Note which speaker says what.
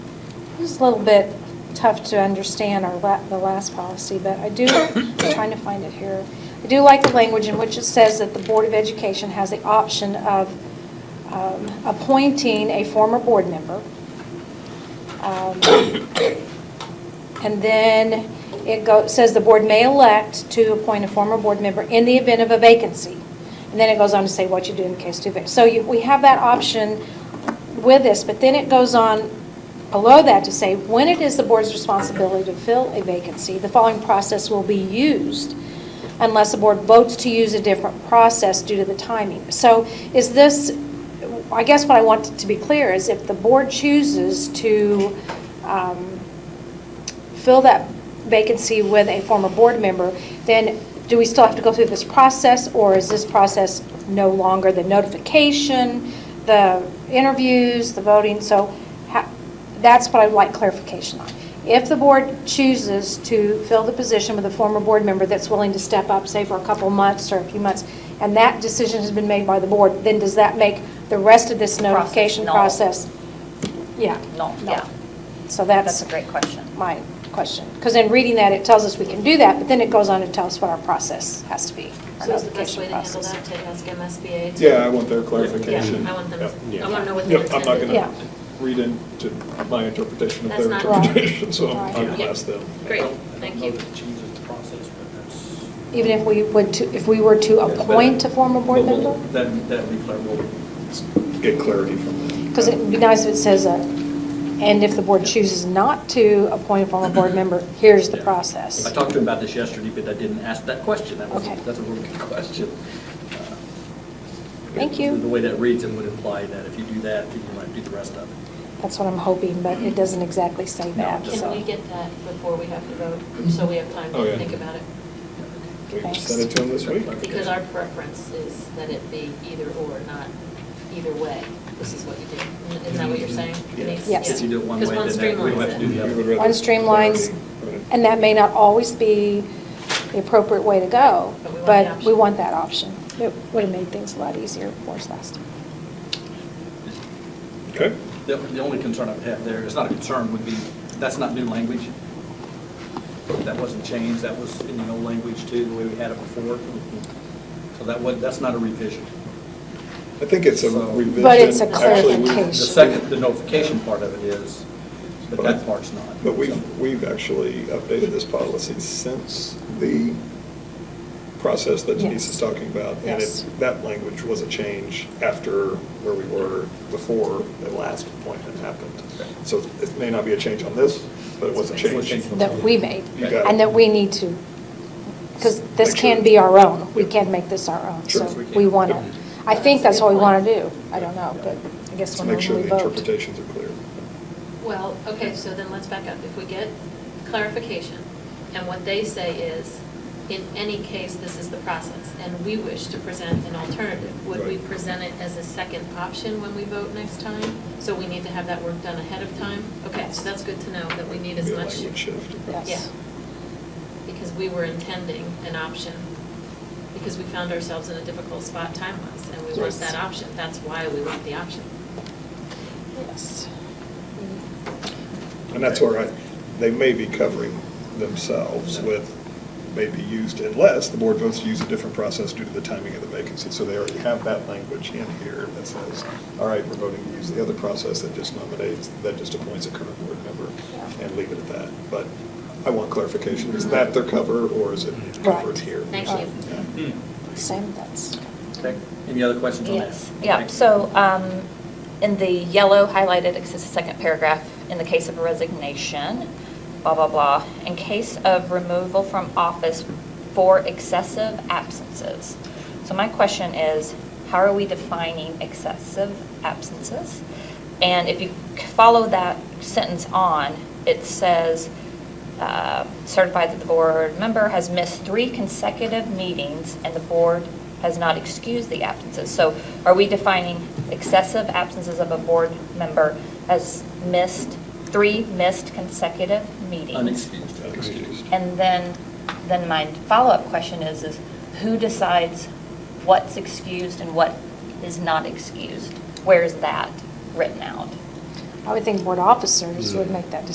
Speaker 1: It was a little bit tough to understand our, la- the last policy, but I do, I'm trying to find it here. I do like the language in which it says that the Board of Education has the option of um, appointing a former board member. Um, and then it go, says the board may elect to appoint a former board member in the event of a vacancy. And then it goes on to say what you do in case two vacancies. So you, we have that option with this, but then it goes on below that to say, when it is the board's responsibility to fill a vacancy, the following process will be used unless the board votes to use a different process due to the timing. So is this, I guess what I want to be clear is if the board chooses to, um, fill that vacancy with a former board member, then do we still have to go through this process, or is this process no longer the notification, the interviews, the voting? So ha- that's what I'd like clarification on. If the board chooses to fill the position with a former board member that's willing to step up, say for a couple months or a few months, and that decision has been made by the board, then does that make the rest of this
Speaker 2: Process
Speaker 1: notification
Speaker 2: null.
Speaker 1: process? Yeah.
Speaker 2: No, yeah.
Speaker 1: So that's.
Speaker 2: That's a great question.
Speaker 1: my question. Because in reading that, it tells us we can do that, but then it goes on and tells us what our process has to be. our
Speaker 3: So is the best
Speaker 1: notification
Speaker 3: way to handle
Speaker 1: process.
Speaker 3: that, to ask MSBA? to-
Speaker 4: Yeah, I want their clarification.
Speaker 3: Yeah, I want them,
Speaker 5: Yeah.
Speaker 3: I want to know what they
Speaker 4: Yep, I'm
Speaker 3: intended.
Speaker 4: not
Speaker 1: Yeah.
Speaker 4: gonna read into my interpretation of
Speaker 3: That's
Speaker 4: their
Speaker 3: not right.
Speaker 4: interpretation, so I'm
Speaker 1: Right.
Speaker 4: gonna
Speaker 3: Yeah.
Speaker 4: ask them.
Speaker 3: Great,
Speaker 5: I don't-
Speaker 3: thank
Speaker 5: I
Speaker 3: you.
Speaker 5: don't know that it changes the process, but that's.
Speaker 1: Even if we would, to- if we were to appoint a former board
Speaker 6: But we'll-
Speaker 1: member?
Speaker 6: That, that we clar- we'll
Speaker 4: Get clarity from them.
Speaker 1: Because it'd be nice if it says, uh, and if the board chooses not to appoint a former board member, here's the
Speaker 6: Yeah.
Speaker 1: process.
Speaker 6: I talked to him about this yesterday, but I didn't ask that question. That was,
Speaker 1: Okay.
Speaker 6: that's a really good question. Uh,
Speaker 1: Thank you.
Speaker 6: The way that reads it would imply that if you do that, then you might do the rest of it.
Speaker 1: That's what I'm hoping, but it doesn't exactly say
Speaker 6: No,
Speaker 1: that,
Speaker 6: just-
Speaker 1: so.
Speaker 3: Can we get that before we have to vote, so we have time
Speaker 4: Oh,
Speaker 3: to
Speaker 4: yeah.
Speaker 3: think about it?
Speaker 4: We can
Speaker 1: Thanks.
Speaker 4: send it to them this week.
Speaker 3: Because our preference is that it be either or, not either way. This is what you do. Isn't that what you're saying, Denise?
Speaker 1: Yes.
Speaker 6: If you do it one way,
Speaker 3: Because one
Speaker 6: then that- we don't have to
Speaker 3: streamlines
Speaker 6: do
Speaker 3: it.
Speaker 6: the
Speaker 4: You would
Speaker 6: other.
Speaker 4: rather
Speaker 1: One streamlines,
Speaker 4: clarity, right.
Speaker 1: and that may not always be the appropriate way to go,
Speaker 3: But we want the
Speaker 1: but
Speaker 3: option.
Speaker 1: we want that option. It would have made things a lot easier for us last time.
Speaker 4: Okay,
Speaker 6: The, the only concern I would have there, it's not a concern, would be, that's not new language. That wasn't changed, that was in the old language too, the way we had it before. So that was, that's not a revision.
Speaker 4: I think it's a
Speaker 6: So-
Speaker 4: revision.
Speaker 1: But it's a
Speaker 4: Actually, we-
Speaker 6: The
Speaker 1: clarification.
Speaker 6: second, the notification part of it is, but that part's not.
Speaker 4: But we've, we've actually updated this policy since the process that Denise
Speaker 1: Yes.
Speaker 4: is talking about. And
Speaker 1: Yes.
Speaker 4: it, that language was a change after where we were before the last appointment happened. So it may not be a change on this, but it was a
Speaker 6: It was a
Speaker 4: change.
Speaker 6: change.
Speaker 1: that we made,
Speaker 4: You got it.
Speaker 1: and that we need to, because this
Speaker 4: Make sure.
Speaker 1: can be our own, we
Speaker 4: Yep.
Speaker 1: can make this our own,
Speaker 4: Sure,
Speaker 1: so
Speaker 6: we can.
Speaker 1: we want to,
Speaker 6: Yep.
Speaker 1: I think
Speaker 3: That's
Speaker 1: that's
Speaker 3: a
Speaker 1: what
Speaker 3: good
Speaker 1: we
Speaker 3: point.
Speaker 1: want to do, I don't know, but I guess
Speaker 4: To
Speaker 1: when we
Speaker 4: make
Speaker 1: vote.
Speaker 4: sure the interpretations are clear.
Speaker 3: Well, okay, so then let's back up. If we get clarification, and what they say is, in any case, this is the process, and we wish to present an alternative, would we
Speaker 4: Right.
Speaker 3: present it as a second option when we vote next time? So we need to have that work done ahead of time? Okay, so that's good to know, that we need as
Speaker 4: Be a
Speaker 3: much.
Speaker 4: Language shift.
Speaker 1: Yes.
Speaker 3: Yeah, because we were intending an option, because we found ourselves in a difficult spot time-wise, and we want
Speaker 1: Yes.
Speaker 3: that option. That's why we want the option.
Speaker 1: Yes.
Speaker 4: And that's where I, they may be covering themselves with, may be used unless the board votes to use a different process due to the timing of the vacancy. So they already have that language in here that says, all right, we're voting to use the other process that just nominates, that just appoints a current board member
Speaker 1: Yeah.
Speaker 4: and leave it at that. But I want clarification, is that their cover or is it covered
Speaker 1: Right.
Speaker 4: here?
Speaker 3: Thank
Speaker 4: So,
Speaker 3: you.
Speaker 4: yeah.
Speaker 1: Same, that's,
Speaker 6: Hmm. Okay, any other questions on that?
Speaker 2: Yes, yeah,
Speaker 6: Okay.
Speaker 2: so um, in the yellow highlighted, it says the second paragraph, in the case of a resignation, blah, blah, blah, in case of removal from office for excessive absences. So my question is, how are we defining excessive absences? And if you c- follow that sentence on, it says, uh, certified that the board member has missed three consecutive meetings and the board has not excused the absences. So are we defining excessive absences of a board member as missed, three missed consecutive meetings?
Speaker 6: Unexcused.
Speaker 4: Unexcused.
Speaker 2: And then, then my follow-up question is, is who decides what's excused and what is not excused? Where's that written out?
Speaker 1: I would think board officers would make that decision.